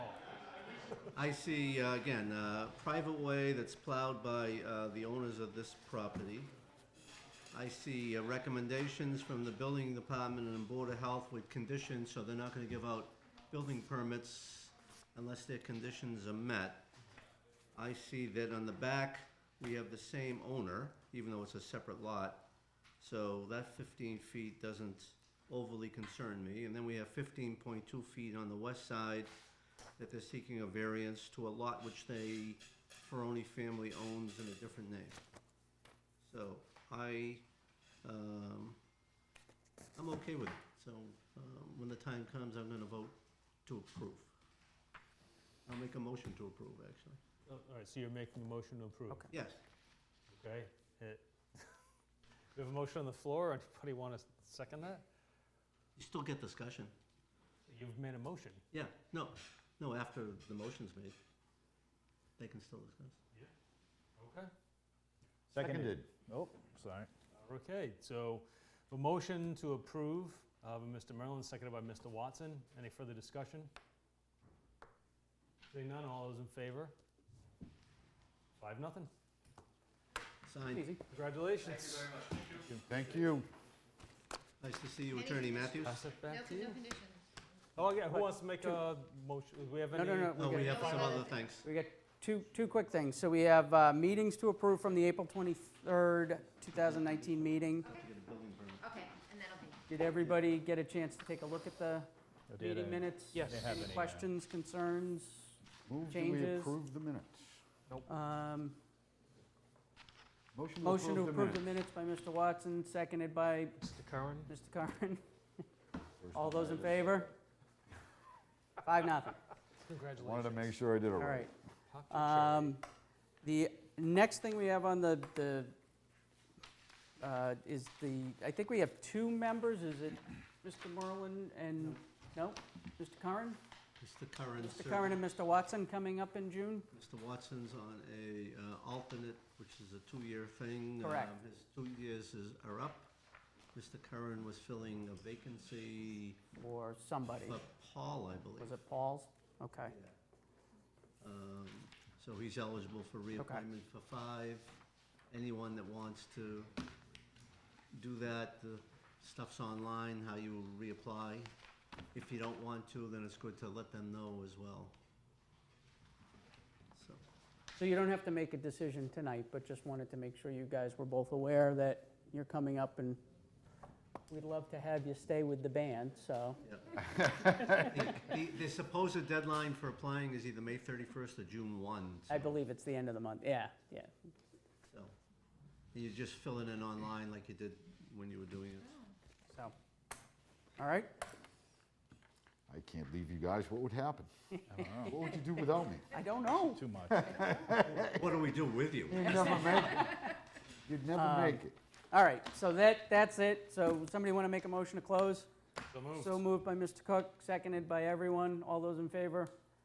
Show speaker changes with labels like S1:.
S1: I see, uh, again, uh, private way that's plowed by uh, the owners of this property. I see uh, recommendations from the building department and Board of Health with conditions, so they're not gonna give out building permits unless their conditions are met. I see that on the back, we have the same owner, even though it's a separate lot. So that fifteen feet doesn't overly concern me. And then we have fifteen point two feet on the west side that they're seeking a variance to a lot which they, Ferroni family owns in a different name. So I, um, I'm okay with it. So, um, when the time comes, I'm gonna vote to approve. I'll make a motion to approve, actually.
S2: Oh, All right, so you're making a motion to approve?
S3: Okay.
S1: Yes,
S2: Okay. Eh, We have a motion on the floor. Anybody want to second that?
S1: you still get discussion.
S2: You've made a motion.
S1: Yeah, no, no, after the motion's made, they can still discuss.
S2: Okay.
S4: Seconded. Oh, sorry.
S2: Okay, so a motion to approve uh, by Mr. Merlin, seconded by Mr. Watson. Any further discussion? Seeing none, all those in favor? Five, nothing.
S1: Signed,
S2: Congratulations.
S4: Thank you.
S1: nice to see you, Attorney Matthews.
S2: Pass it
S5: No, no
S2: back to you.
S5: conditions.
S2: Oh, yeah, who wants to make a motion? Do we have
S3: No,
S2: any?
S3: no, no,
S1: Oh, we
S3: we got,
S1: have some other things.
S3: we got two, two quick things. So we have uh, meetings to approve from the April 23rd, 2019 meeting.
S1: To get a building permit.
S5: Okay, and that'll be.
S3: Did everybody get a chance to take a look at the
S4: did, I-
S3: meeting minutes?
S2: Yes. Didn't have
S3: Any
S4: any, uh,
S3: questions, concerns?
S4: Move that we
S3: Changes.
S4: approve the minutes.
S3: Um,
S4: Motion
S3: Motion to approve the
S4: minutes.
S3: minutes by Mr. Watson, seconded by
S2: Mr. Curran?
S3: Mr. Curran.
S4: First
S3: All
S4: of
S3: those in
S4: I
S3: favor? Five, nothing.
S4: just
S2: Congratulations.
S4: Wanted to make sure I did it
S3: All
S4: right.
S3: right.
S2: Talk to Charlie.
S3: Um, The next thing we have on the, the, uh, is the, I think we have two members, is it Mr. Merlin and, no, Mr. Curran?
S1: Mr. Curran,
S3: Mr.
S1: sir.
S3: Curran and Mr. Watson coming up in June?
S1: Mr. Watson's on a uh, alternate, which is a two-year thing.
S3: Correct.
S1: Um, His two years is, are up. Mr. Curran was filling a vacancy
S3: Or somebody?
S1: for Paul, I believe.
S3: Was it Paul's? Okay.
S1: Yeah. Um, So he's eligible for reappointment for five. Anyone that wants to do that, the stuff's online, how you reapply. If you don't want to, then it's good to let them know as well. So,
S3: So you don't have to make a decision tonight, but just wanted to make sure you guys were both aware that you're coming up and we'd love to have you stay with the band, so.
S1: yeah. The- The the supposed deadline for applying is either May 31st or June 1.
S3: I
S1: so-
S3: believe it's the end of the month, yeah, yeah.
S1: so. You just fill it in online like you did when you were doing it.
S3: So, all right,
S4: I can't leave you guys. What would happen? What would you do without me?
S3: I don't know.
S6: Too much.
S1: What do we do with you?
S4: You'd never make it. You'd
S3: Um,
S4: never make it.
S3: All right, so that, that's it. So somebody want to make a motion to close?
S2: So moved.
S3: So moved by Mr. Cook, seconded by everyone. All those in favor?